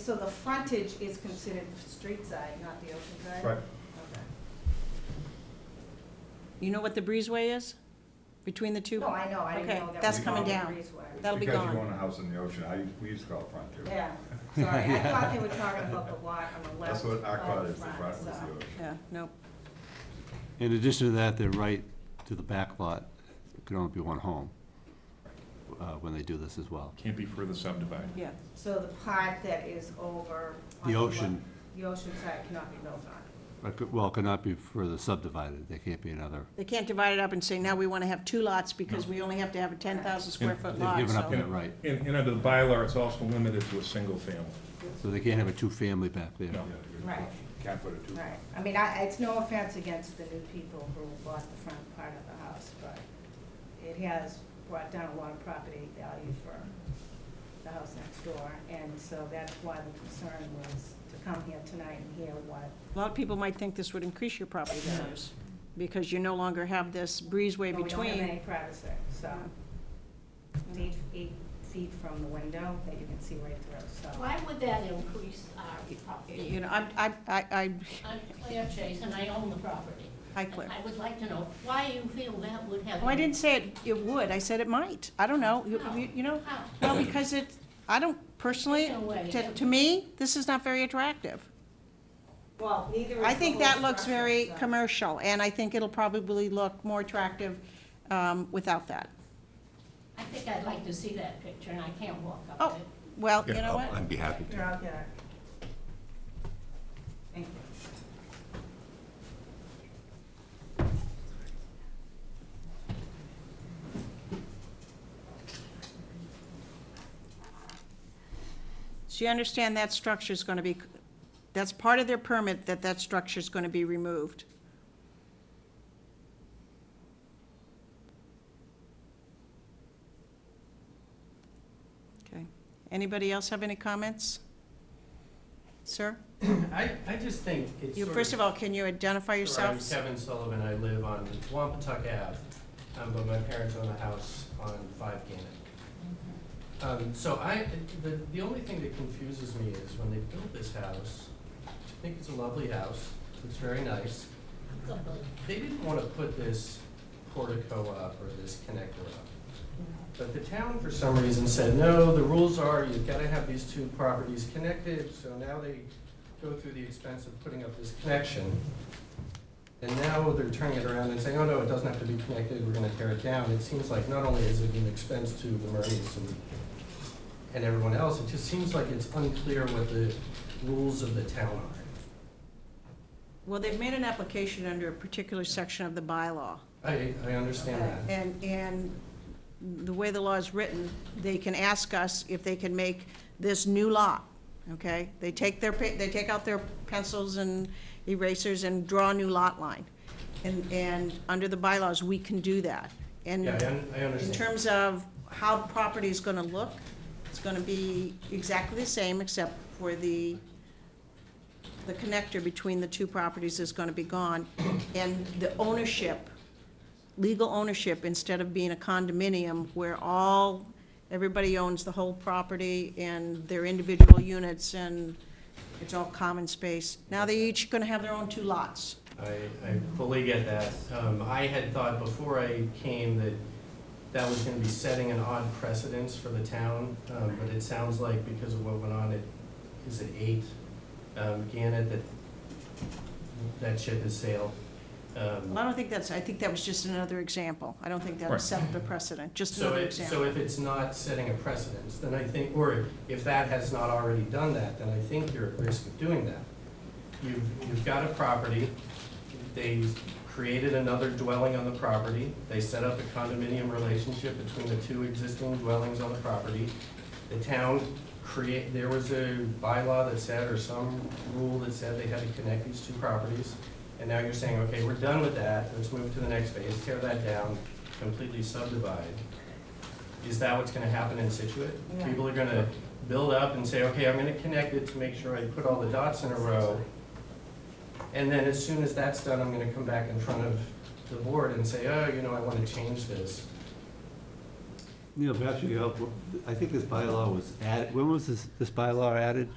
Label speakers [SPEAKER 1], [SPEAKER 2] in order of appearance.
[SPEAKER 1] So the frontage is considered the street side, not the ocean side?
[SPEAKER 2] Right.
[SPEAKER 1] Okay.
[SPEAKER 3] You know what the breezeway is between the two?
[SPEAKER 1] No, I know, I didn't
[SPEAKER 3] Okay,
[SPEAKER 1] know that.
[SPEAKER 3] that's
[SPEAKER 1] was
[SPEAKER 2] coming
[SPEAKER 1] on the
[SPEAKER 3] down.
[SPEAKER 1] breezeway.
[SPEAKER 3] That'll be
[SPEAKER 2] Because
[SPEAKER 3] gone.
[SPEAKER 2] you own a house in the ocean, I, we used to call it front too.
[SPEAKER 1] Yeah, sorry, I thought they were talking about the lot on the left.
[SPEAKER 2] That's what our
[SPEAKER 1] of
[SPEAKER 2] cottage, the
[SPEAKER 1] front,
[SPEAKER 2] front was the
[SPEAKER 1] so-
[SPEAKER 2] ocean.
[SPEAKER 3] Yeah, nope.
[SPEAKER 4] In addition to that, they're right to the back lot, It can only be one home, uh, when they do this as well.
[SPEAKER 5] Can't be further subdivided.
[SPEAKER 3] yeah.
[SPEAKER 1] So the part that is over. on
[SPEAKER 4] The
[SPEAKER 1] le-
[SPEAKER 4] ocean.
[SPEAKER 1] The ocean side cannot be built on.
[SPEAKER 4] Or could- Well, it cannot be further subdivided, there can't be another.
[SPEAKER 3] They can't divide it up and say, now we want to have two lots because we only have to have a ten thousand square foot
[SPEAKER 4] They've
[SPEAKER 3] lot,
[SPEAKER 4] given up
[SPEAKER 3] so.
[SPEAKER 4] that right,
[SPEAKER 5] And, and under the bylaw, it's also limited to a single family.
[SPEAKER 4] so they can't have a two-family back there.
[SPEAKER 5] No.
[SPEAKER 2] Yeah, you
[SPEAKER 1] Right.
[SPEAKER 2] Can't put it too.
[SPEAKER 1] Right, I mean, I, it's no offense against the new people who bought the front part of the house, but it has brought down a lot of property value for the house next door, and so that's why the concern was to come here tonight and hear what,
[SPEAKER 3] A lot of people might think this would increase your property values, because you no longer have this breezeway
[SPEAKER 1] Well, Oh, we don't have
[SPEAKER 3] between.
[SPEAKER 1] any privacy, so. It's Eight, eight feet from the window that you can see right through, so.
[SPEAKER 6] Why would that increase our
[SPEAKER 3] You
[SPEAKER 6] property?
[SPEAKER 3] know, I, I, I, I,
[SPEAKER 6] I'm Claire Chase, and I own the property.
[SPEAKER 3] Hi, Claire.
[SPEAKER 6] And I would like to know why you feel that would have.
[SPEAKER 3] oh, I didn't say it, it would, I said it might, I don't know, You- you, you know,
[SPEAKER 6] How?
[SPEAKER 3] well, because it, I don't personally,
[SPEAKER 6] No way.
[SPEAKER 3] to, to me, this is not very attractive.
[SPEAKER 1] Well, neither is
[SPEAKER 3] I
[SPEAKER 1] the
[SPEAKER 3] think
[SPEAKER 1] whole
[SPEAKER 3] that looks
[SPEAKER 1] structure,
[SPEAKER 3] very
[SPEAKER 1] so.
[SPEAKER 3] commercial, and I think it'll probably look more attractive um, without that.
[SPEAKER 6] I think I'd like to see that picture, and I can't walk
[SPEAKER 3] Oh,
[SPEAKER 6] up it.
[SPEAKER 3] well, you
[SPEAKER 4] oh,
[SPEAKER 3] know what?
[SPEAKER 7] I'd be happy
[SPEAKER 1] Here, I'll get it. Thank you.
[SPEAKER 3] So you understand that structure's gonna be, that's part of their permit, that that structure's gonna be removed. Okay. Anybody else have any comments? Sir?
[SPEAKER 8] I, I just think it's
[SPEAKER 3] You,
[SPEAKER 8] sort
[SPEAKER 3] first of all, can you identify
[SPEAKER 8] Sure, I'm
[SPEAKER 3] yourself?
[SPEAKER 8] Kevin Sullivan, I live on Wampatuck Ave, um, but my parents own a house on Five Gannett. Um, so I, the, the only thing that confuses me is when they built this house, I think it's a lovely house, it's very nice. They didn't wanna put this portico up or this connector up. But the town, for some reason, said, no, the rules are you've got to have these two properties connected, so now they go through the expense of putting up this connection. And now they're turning it around and saying, oh, no, it doesn't have to be connected, we're going to tear it down. It seems like not only is it an expense to the Murrays and, and everyone else, it just seems like it's unclear what the rules of the town are.
[SPEAKER 3] Well, they've made an application under a particular section of the bylaw.
[SPEAKER 8] I, I understand that.
[SPEAKER 3] And, and the way the law is written, they can ask us if they can make this new lot, okay? They take their, pa- they take out their pencils and erasers and draw a new lot line. And, and under the bylaws, we can do that. And
[SPEAKER 8] Yeah, I, un- I
[SPEAKER 3] in
[SPEAKER 8] understand.
[SPEAKER 3] terms of how the property is gonna look, it's gonna be exactly the same, except for the, the connector between the two properties is gonna be gone, and the ownership, legal ownership, instead of being a condominium where all, everybody owns the whole property and their individual units, and it's all common space, now they each gonna have their own two lots.
[SPEAKER 8] I, I fully get that. Um, I had thought before I came that that was gonna be setting an odd precedence for the town, um, but it sounds like because of what went on at, is it eight? Um, Gannett, that, that ship has sailed. Um,
[SPEAKER 3] Well, I don't think that's, I think that was just another example, I don't think that
[SPEAKER 5] Right.
[SPEAKER 3] set the precedent, just
[SPEAKER 8] So
[SPEAKER 3] another
[SPEAKER 8] it,
[SPEAKER 3] example.
[SPEAKER 8] so if it's not setting a precedence, then I think, or if that has not already done that, then I think you're at risk of doing that. You've, you've got a property, they created another dwelling on the property, they set up a condominium relationship between the two existing dwellings on the property. The town create, there was a bylaw that said, or some rule that said they had to connect these two properties. And now you're saying, okay, we're done with that, let's move to the next phase, tear that down, completely subdivide. Is that what's gonna happen in Situate?
[SPEAKER 1] Yeah.
[SPEAKER 8] People are gonna build up and say, okay, I'm gonna connect it to make sure I put all the dots in a row. And then as soon as that's done, I'm gonna come back in front of the board and say, oh, you know, I wanna change this.
[SPEAKER 4] Neil, perhaps you could help, I think this bylaw was added, when was this, this bylaw added?